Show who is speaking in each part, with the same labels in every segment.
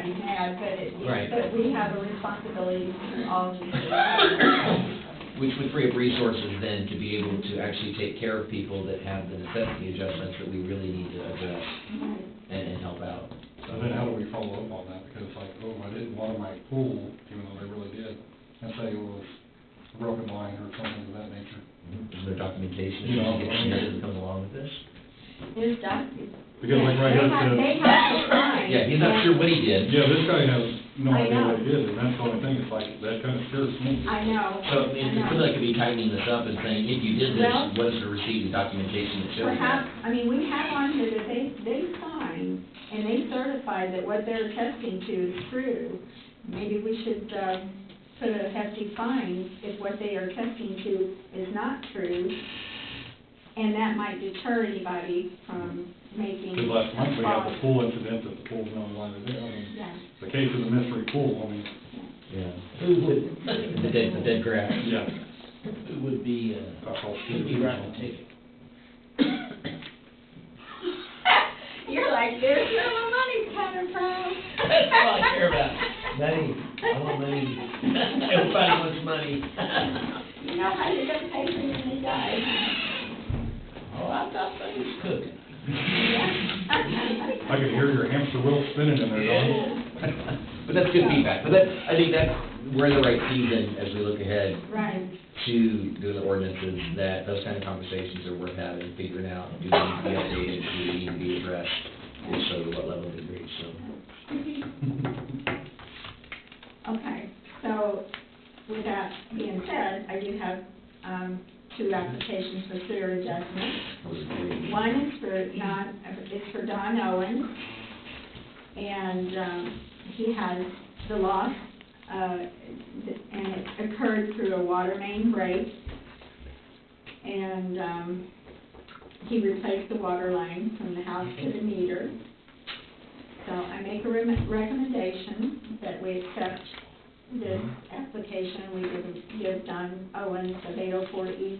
Speaker 1: know, but it,
Speaker 2: Right.
Speaker 1: but we have a responsibility to all communities.
Speaker 2: Which would free up resources then to be able to actually take care of people that have the necessity adjustments that we really need to address and, and help out.
Speaker 3: So then how do we follow up on that? Because it's like, oh, I didn't water my pool, even though they really did, and say it was a broken line or something of that nature.
Speaker 2: Is there documentation that should get shared that comes along with this?
Speaker 1: There's doc.
Speaker 3: Because like right
Speaker 1: They
Speaker 3: up
Speaker 1: have-
Speaker 3: to-
Speaker 1: They have to sign.
Speaker 2: Yeah, he's not sure what he did.
Speaker 3: Yeah, this guy has no
Speaker 1: I
Speaker 3: idea
Speaker 1: know.
Speaker 3: what it is, and that's the only thing, it's like, that kind of scares me.
Speaker 1: I know.
Speaker 2: So, I mean, I feel like if we tighten this up and saying, if you did this,
Speaker 1: Well-
Speaker 2: what is the receipt and documentation that shows
Speaker 1: Perhaps,
Speaker 2: that?
Speaker 1: I mean, we have on here that they, they sign and they certify that what they're attesting to is true. Maybe we should, uh, put a hefty fine if what they are attesting to is not true. And that might deter anybody from making.
Speaker 3: Because last month we had the
Speaker 1: a false-
Speaker 3: pool incident, that the pool's no longer there, I mean,
Speaker 1: Yeah,
Speaker 3: the case of the mystery pool, I mean,
Speaker 2: Yeah. The dead, the dead grass.
Speaker 3: yeah,
Speaker 4: It would be, uh,
Speaker 3: that's all.
Speaker 4: should be right to take it.
Speaker 1: You're like, there's where my money's coming from.
Speaker 4: That's all I care about. Money, I want money. Everybody wants money.
Speaker 1: You know how you're gonna pay for your new guy.
Speaker 4: Oh, I thought they was cooking.
Speaker 3: I could hear your hamster wheel spinning in there, dog.
Speaker 2: But that's good feedback, but that, I think that, we're in the right season as we look ahead
Speaker 1: Right.
Speaker 2: to doing the ordinances, that those kind of conversations are worth having, figuring out, do they need to be updated, do they need to be addressed, and so to what level of degree, so.
Speaker 1: Okay, so with that being said, I do have, um, two applications for sewer adjustment.
Speaker 2: I would agree.
Speaker 1: One is for non, is for Don Owen, and, um, he has the loss, uh, and it occurred through a water main break. And, um, he replaced the water line from the house to the meter. So I make a rem- recommendation that we accept this application, we give, give Don Owens of eight oh four E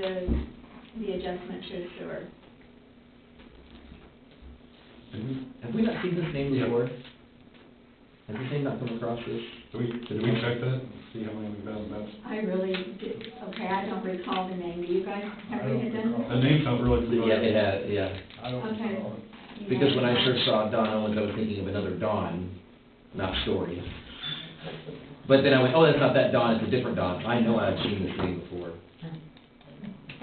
Speaker 1: the, the adjustment to the sewer.
Speaker 2: Have we- Have we not seen this name before? Has this name not come across this?
Speaker 3: Do we, did we check that, and see how many we've had in that?
Speaker 1: I really did, okay, I don't recall the name, do you guys, have you had done?
Speaker 3: That name sounds really
Speaker 2: Yeah, it
Speaker 3: familiar.
Speaker 2: had, yeah,
Speaker 3: I don't
Speaker 1: Okay.
Speaker 3: recall it.
Speaker 2: because when I first saw Don Owens, I was thinking of another Don, not Story. But then I went, oh, that's not that Don, it's a different Don, I know I've seen this name before.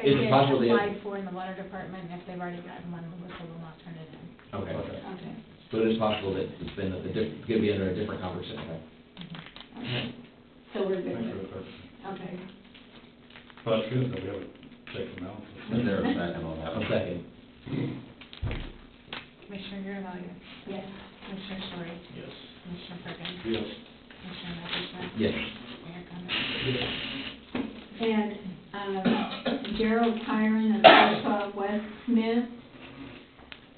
Speaker 5: They
Speaker 2: Is it
Speaker 5: did
Speaker 2: possible they-
Speaker 5: apply for in the water department, and if they've already gotten one, Melissa will not turn it in.
Speaker 2: Okay,
Speaker 1: Okay,
Speaker 2: but it is possible that it's been, a diff- it's gonna be under a different conversation.
Speaker 1: okay, so we're
Speaker 3: Thanks
Speaker 1: good,
Speaker 3: for the clarification.
Speaker 1: okay.
Speaker 3: Well, That's good, that we have a check them out.
Speaker 2: Is there a second on that? A second.
Speaker 5: Commissioner Garavilla,
Speaker 1: Yes,
Speaker 5: Commissioner Story,
Speaker 4: Yes.
Speaker 5: Commissioner Perkins,
Speaker 3: Yes.
Speaker 5: Commissioner Merschman,
Speaker 2: Yes.
Speaker 5: Mayor Condon.
Speaker 1: and, um, Gerald Tyron of twelve twelve West Smith,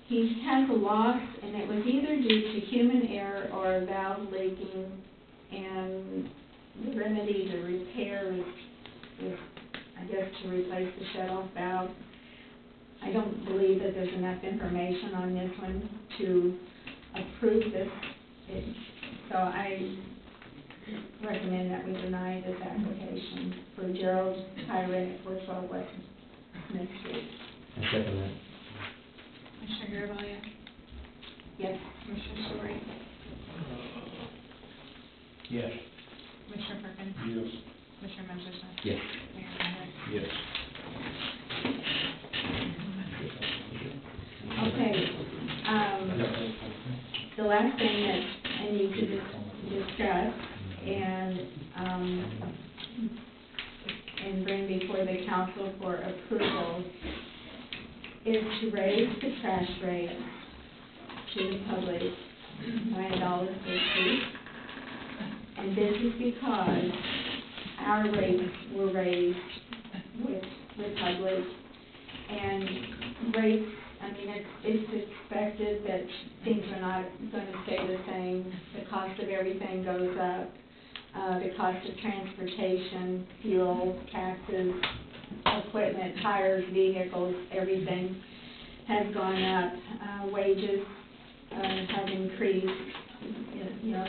Speaker 1: he has a loss, and it was either due to human error or a valve leaking, and the remedy to repair is, is, I guess, to replace the shut-off valve. I don't believe that there's enough information on this one to approve this, It- so I recommend that we deny this application for Gerald Tyree for 12 West Smith Street.
Speaker 2: A second that.
Speaker 5: Commissioner Garavilla,
Speaker 1: Yes,
Speaker 5: Commissioner Story,
Speaker 4: Yes.
Speaker 5: Commissioner Perkins,
Speaker 3: Yes.
Speaker 5: Commissioner Merschman,
Speaker 2: Yes.
Speaker 5: Mayor Condon.
Speaker 4: Yes.
Speaker 1: okay. Um, the last thing that I need to dis- discuss and, um, and bring before the council for approval is to raise the trash rate to the public by a dollar fifty. And this is because our rates were raised with the public and rates, I mean, it's, it's expected that things are not gonna stay the same. The cost of everything goes up, uh, the cost of transportation, fuel, taxes, equipment, tires, vehicles, everything has gone up. Uh, wages, uh, have increased.